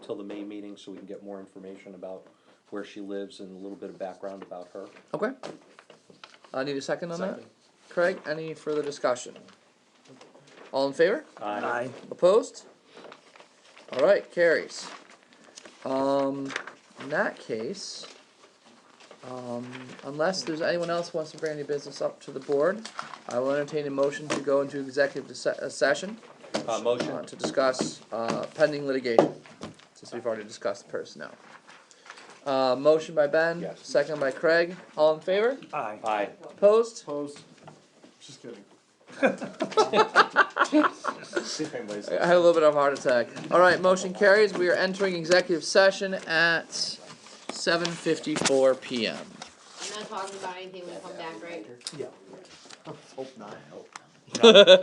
till the May meeting so we can get more information about where she lives and a little bit of background about her. Okay. I need a second on that. Second. Craig, any further discussion? All in favor? Aye. Opposed? All right, carries. Um, in that case, um, unless there's anyone else who wants to bring any business up to the board, I will entertain a motion to go into executive se- uh, session Uh, uh, motion, to discuss, uh, pending litigation, since we've already discussed personnel. Uh, motion by Ben, Yes. second by Craig, all in favor? Aye. aye. Opposed? Opposed? Just kidding. I had a little bit of a heart attack. All right, motion carries. We are entering executive session at seven fifty-four PM. I'm not talking about anything when we come back, right? Yeah. Hope not.